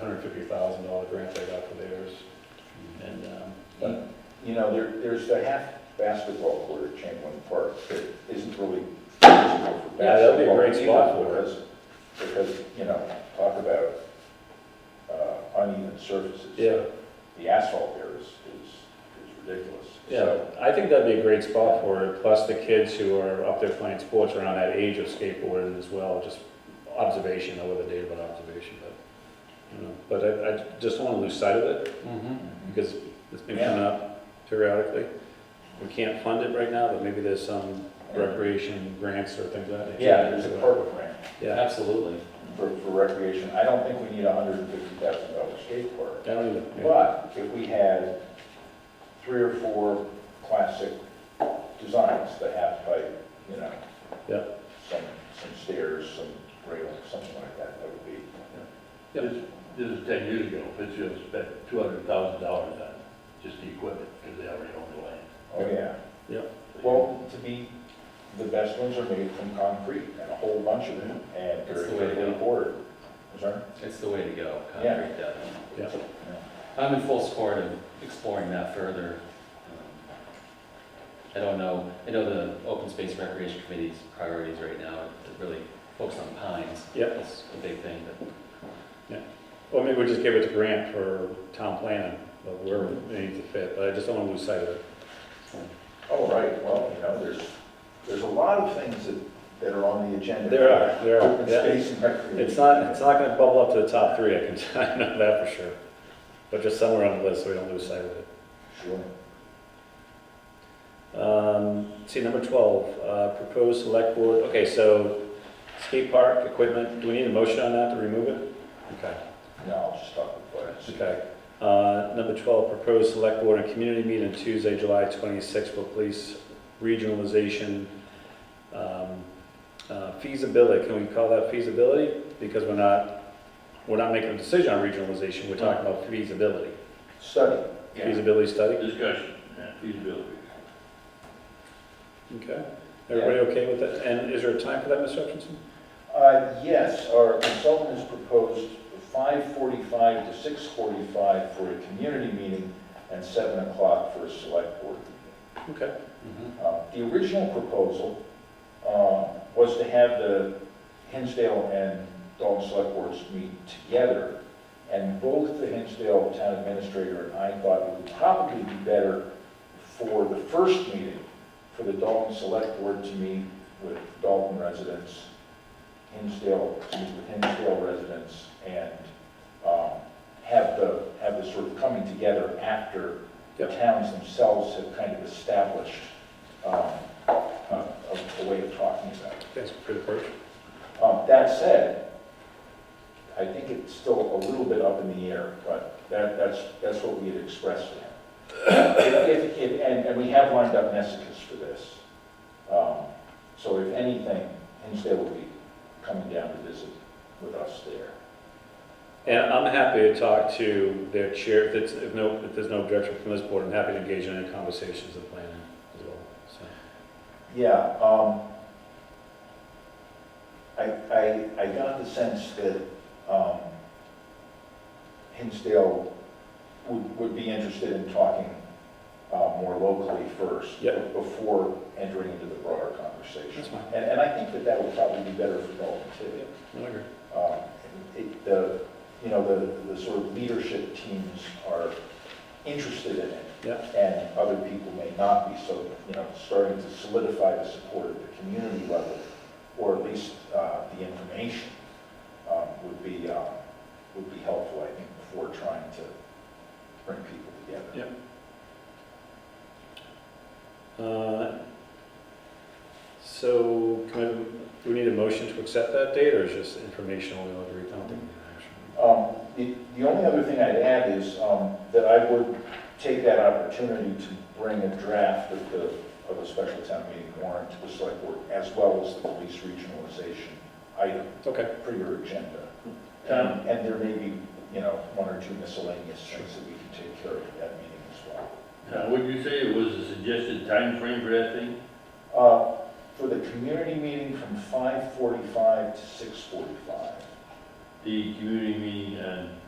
fifty thousand dollar grant they got for theirs, and, um, but, You know, there, there's the half basketball court at Chamberlain Park that isn't really usable for basketball. Yeah, that'd be a great spot either, for it. Because, because, you know, talk about uh, uneven surfaces. yeah, The asphalt there is, is is ridiculous. yeah, So, I think that'd be a great spot for it, plus the kids who are up there playing sports around that age of skateboarding as well, just observation, I would have dated about observation, but, you know, but I, I just don't wanna lose sight of it, because it's been coming up periodically. We can't fund it right now, but maybe there's some recreation grants or things like that. Yeah, there's a park grant Yeah, Absolutely. for, for recreation. I don't think we need a hundred and fifty thousand dollar skate park. I don't even, yeah. But if we had three or four classic designs, the half pipe, you know, Yeah. some, some stairs, some rails, something like that, that would be, Yep. This, this is ten years ago, Pittsfield spent two hundred thousand dollars on just the equipment, because they already own the land. oh, yeah. Yeah. Well, to me, the best ones are made from concrete, and a whole bunch of them, and That's they're the way to go. heavily poured. I'm Sorry? It's the way to go, Yeah. concrete definitely. Yeah. I'm in full support of exploring that further. Um, I don't know, I know the Open Space Recreation Committee's priorities right now are really focused on pines. Yep. That's a big thing, but Well, maybe we just give it to Grant for town planning, but where it needs to fit, but I just don't want to lose sight of it. Oh, right, well, you know, there's, there's a lot of things that, that are on the agenda. There are, there are, Open yeah. space and recreation. It's not, it's not gonna bubble up to the top three, I can, tell- I know that for sure. But just somewhere on the list, so we don't lose sight of it. Sure. Um, see, number twelve, uh, proposed select board, okay, so skate park equipment, do we need a motion on that to remove it? Okay, No, I'll just talk about it. okay. Uh, number twelve, proposed select board and community meeting Tuesday, July twenty-sixth for police regionalization, um, uh, feasibility, can we call that feasibility? Because we're not, we're not making a decision on regionalization, we're talking about feasibility. Study. Feasibility study, Discussion, yeah, feasibility. okay? Everybody okay with that? And is there a time for that, Mr. Hutchinson? Uh, Yes, our consultant has proposed 5:45 to 6:45 for a community meeting and 7 o'clock for a select board. meeting. Okay. Uh, The original proposal uh, was to have the Hinsdale and Dalton Select Boards meet together, and both the Hinsdale Town Administrator and I thought it would probably be better for the first meeting, for the Dalton Select Board to meet with Dalton residents Hinsdale, excuse me, Hinsdale residents and um, have the, have the sort of coming together after the Yep. towns themselves have kind of established um, a a- a way of talking about it. That's pretty close. Um, That said, I think it's still a little bit up in the air, but that, that's, that's what we had expressed to him. If- if- if- And, and we have lined up messages for this. Um, So if anything, Hinsdale will be coming down to visit with us there. And I'm happy to talk to their chair, if it's, if no, if there's no objection from this board, I'm happy to engage in any conversations and planning as well, so. Yeah, um, I, I, I got the sense that, um, Hinsdale would, would be interested in talking, uh, more locally first. Yep. Before entering into the broader conversation. That's fine. And, and I think that that would probably be better for Dalton too. I agree. Um, it, the, you know, the, the sort of leadership teams are interested in it Yeah, and other people may not be, so, you know, starting to solidify the support at the community level, or at least uh, the information um, would be, um, would be helpful, I think, before trying to bring people together. Yeah. uh, so, can I, do we need a motion to accept that date, or is just informational, we don't agree, I don't think we need an action? Um, The the only other thing I'd add is um, that I would take that opportunity to bring a draft of the, of a special town meeting warrant to the select board, as well as the police regionalization item. Okay, per your agenda. Um, Tom? And and there may be, you know, one or two miscellaneous things that we can take care of at that meeting as well. Now, would you say it was a suggested time frame for that thing? Uh, For the community meeting from 5:45 to 6:45, The community meeting on